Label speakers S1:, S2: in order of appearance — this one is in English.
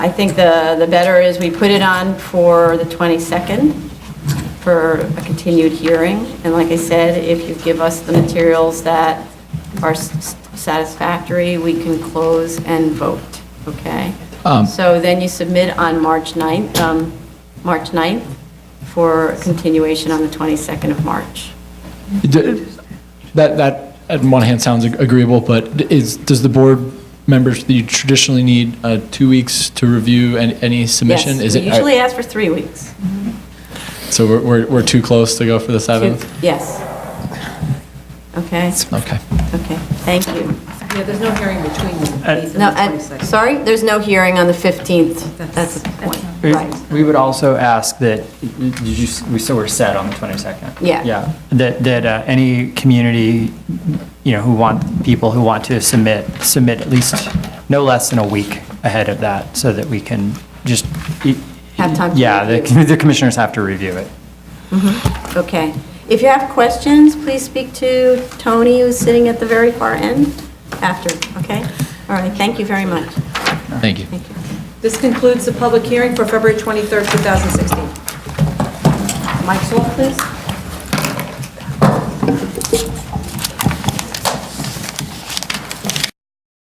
S1: I think the, the better is we put it on for the 22nd for a continued hearing. And like I said, if you give us the materials that are s- satisfactory, we can close and vote, okay?
S2: Um,
S1: So then you submit on March 9th, um, March 9th for continuation on the 22nd of March.
S2: D- That, that, on one hand, sounds ag- agreeable, but d- is, does the board members, do you traditionally need uh, two weeks to review an- any submission?
S1: Yes,
S2: Is
S1: we
S2: it- uh,
S1: usually ask for three weeks.
S2: So we're- we're, we're too close to go for the 7th?
S1: Yes. Okay,
S2: Okay.
S1: okay, thank you.
S3: Yeah, there's no hearing between the 8th
S1: No,
S3: and
S1: and,
S3: the 22nd.
S1: sorry, there's no hearing on the 15th. That's the point,
S4: We-
S1: right.
S4: We would also ask that, did you, we still were set on the 22nd?
S1: Yeah.
S4: Yeah, that, that uh, any community, you know, who want, people who want to submit, submit at least no less than a week ahead of that, so that we can just.
S1: Have time to
S4: Yeah,
S1: review.
S4: the the commissioners have to review it.
S1: Mm-hmm. Okay. If you have questions, please speak to Tony, who's sitting at the very far end after, okay? All right, thank you very much.
S2: Thank you.
S1: Thank you.
S3: This concludes the public hearing for February 23rd, 2016. Mike's off, please.